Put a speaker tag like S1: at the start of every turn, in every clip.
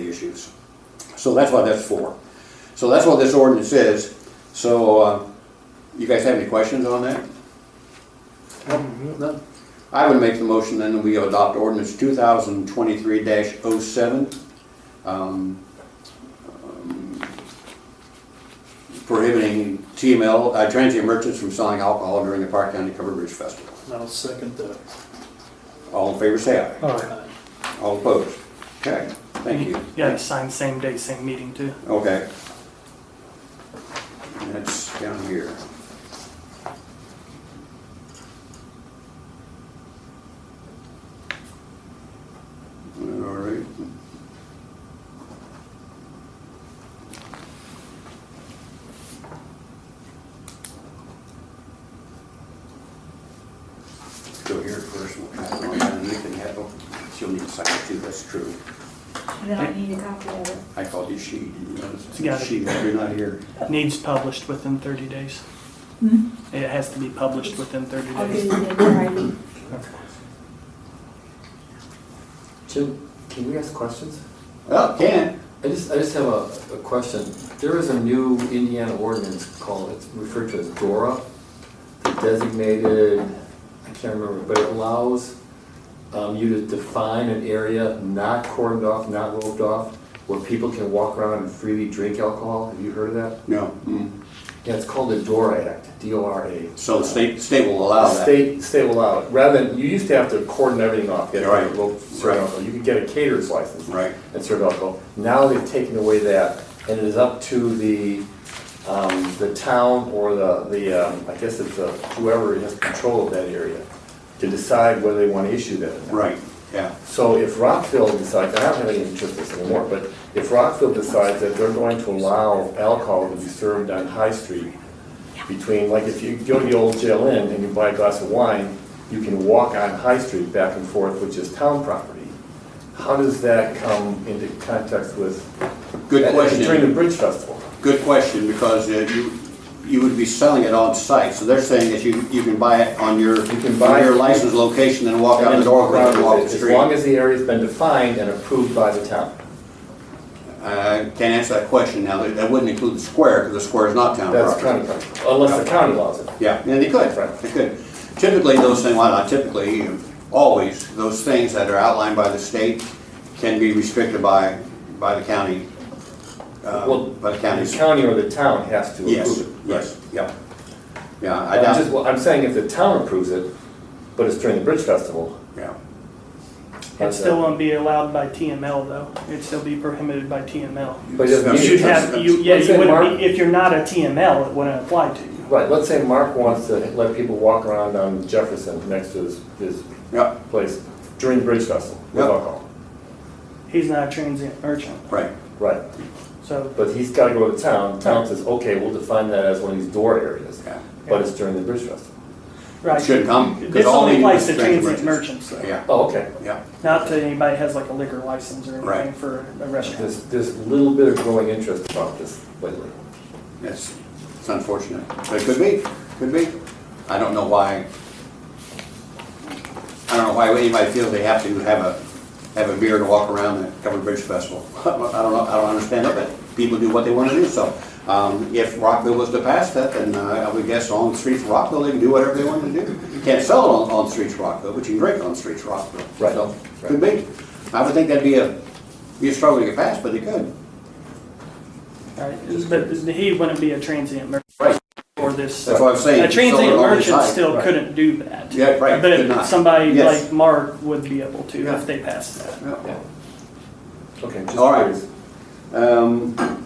S1: issues. So that's what that's for. So that's what this ordinance is. So, uh, you guys have any questions on that? No. I would make the motion then that we adopt ordinance two thousand twenty-three 7 um, um, prohibiting TML, uh, transient merchants from selling alcohol during the Park County Covered Bridge Festival.
S2: I'll second uh, that.
S1: All in favor, say aye.
S3: All right.
S1: All opposed? Okay, thank you.
S3: You gotta sign same day, same meeting too.
S1: Okay. And That's down here. All right. Go here first, we'll pass it on, and you can have, a- she'll need to sign it too, that's true.
S4: Then I need a copy of it.
S1: I called you she, didn't you notice?
S3: It's got it.
S1: She, you're not here.
S3: Needs published within thirty days. It has to be published within thirty
S4: Hmm? I'll
S3: days.
S4: do it in writing.
S5: Jim, can we ask questions?
S1: Well, can.
S5: I just, I just have a, a question. There is a new Indiana ordinance called, it's referred to as DORA, designated, I can't remember, but it allows um, you to define an area not cordoned off, not roped off, where people can walk around and freely drink alcohol. Have you heard of that?
S1: No. mm.
S5: Yeah, it's called the DORA Act, D-O-R-A.
S1: So the state, state will allow that.
S5: State, state will allow it. Rather than, you used to have to cordon everything off, get a
S1: Right.
S5: rope,
S1: Right.
S5: serve alcohol. You could get a caterer's license.
S1: Right.
S5: and serve alcohol. Now they've taken away that, and it is up to the, um, the town or the, the, um, I guess it's uh, whoever has control of that area to decide whether they want to issue that. or not.
S1: Right, yeah.
S5: So if Rockville decides, I don't have any interest in this anymore, but if Rockville decides that they're going to allow alcohol to be served on High Street between, like if you go to the old jail inn and you buy a glass of wine, you can walk on High Street back and forth, which is town property. How does that come into context with?
S1: Good
S5: and- and During the
S1: question.
S5: Bridge Festival?
S1: Good question, because uh, you, you would be selling it on site. So they're saying that you, you can buy it on your,
S5: You can buy
S1: on your
S5: it.
S1: licensed location and walk out
S5: And
S1: the door,
S5: then
S1: and walk the
S5: As long
S1: street.
S5: as the area's been defined and approved by the town.
S1: I can't answer that question now. That that wouldn't include the square, because the square is not town
S5: That's
S1: property.
S5: county property, unless the county allows it.
S1: Yeah, and they could,
S5: Right.
S1: they could. Typically, those things, well, not typically, always, those things that are outlined by the state can be restricted by, by the county,
S5: Well,
S1: uh, by the
S5: The
S1: counties.
S5: county or the town has to approve it.
S1: Yes, yes, yeah. Yeah, I
S5: I'm
S1: doubt,
S5: just, well, I'm saying if the town approves it, but it's during the Bridge Festival,
S1: yeah,
S3: It still won't be allowed by TML though. It'd still be prohibited by TML.
S5: but it doesn't
S1: That's-
S5: mean.
S3: You'd have, you, yeah,
S5: Let's
S3: you
S5: say
S3: wouldn't
S5: Mark-
S3: be, if you're not a TML, it wouldn't apply to you.
S5: Right, let's say Mark wants to let people walk around on Jefferson next to his, his
S1: yeah,
S5: place during the Bridge Festival with
S1: Yep.
S5: alcohol.
S3: He's not a transient merchant,
S1: right,
S5: Right,
S3: so
S5: but he's gotta go to town, town says, okay, we'll define that as one of these door areas,
S1: yeah.
S5: but it's during the Bridge Festival.
S3: right.
S1: Shouldn't come, 'cause
S3: This
S1: all
S3: only
S1: they do
S3: applies
S1: is
S3: to
S1: transient
S3: transient
S1: merchants.
S3: merchants though.
S1: Yeah,
S5: Oh, okay,
S1: yeah,
S3: Not to anybody has like a liquor license or
S1: Right.
S3: anything for a restaurant.
S5: there's, there's a little bit of growing interest about this lately.
S1: that's, it's unfortunate, but it could be, could be. I don't know why, I don't know why anybody feels they have to have a, have a beer to walk around the Covered Bridge Festival. I don't know, I don't understand it, but people do what they want to do, so. Um, if Rockville was to pass that, then uh, I would guess on the streets of Rockville, they can do whatever they want to do. You can't sell it on, on the streets of Rockville, but you can drink on the streets of Rockville.
S5: Right.
S1: So, Could be. I would think that'd be a, be a struggle to get passed, but it could.
S3: Right, but he wouldn't be a transient merchant.
S1: Right.
S3: Or this.
S1: That's what I'm saying.
S3: A transient
S1: Solar on the
S3: merchant
S1: side.
S3: still
S5: right.
S3: couldn't do that.
S1: Yeah, right, could
S3: But
S1: not.
S3: somebody
S1: Yes.
S3: like Mark would be able to
S1: Yeah.
S3: if they passed that.
S1: Yeah.
S5: Yeah. Okay, just
S1: All right.
S5: curious.
S1: Um,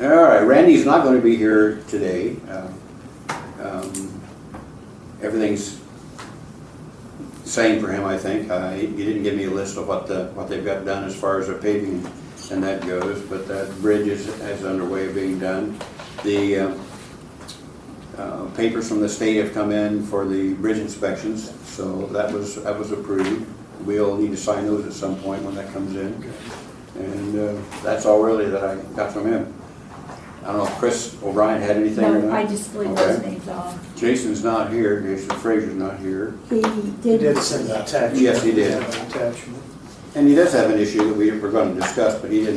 S1: all right, Randy's not gonna be here today. Um, um, Everything's same for him, I think. Uh, he he didn't give me a list of what the, what they've got done as far as their paving and that goes, but that bridge is, is underway of being done. The, uh, uh, papers from the state have come in for the bridge inspections, so that was, that was approved. We'll need to sign those at some point when that comes in. And uh, that's all really that I got from him. I don't know if Chris O'Brien had anything or
S4: No,
S1: not.
S4: I just leave those names on.
S1: Jason's not here, Jason Frazier's not here.
S4: He
S2: He
S4: did.
S2: did send an attachment.
S1: Yes, he did.
S2: An Attachment.
S1: And he does have an issue that we were gonna discuss, but he didn't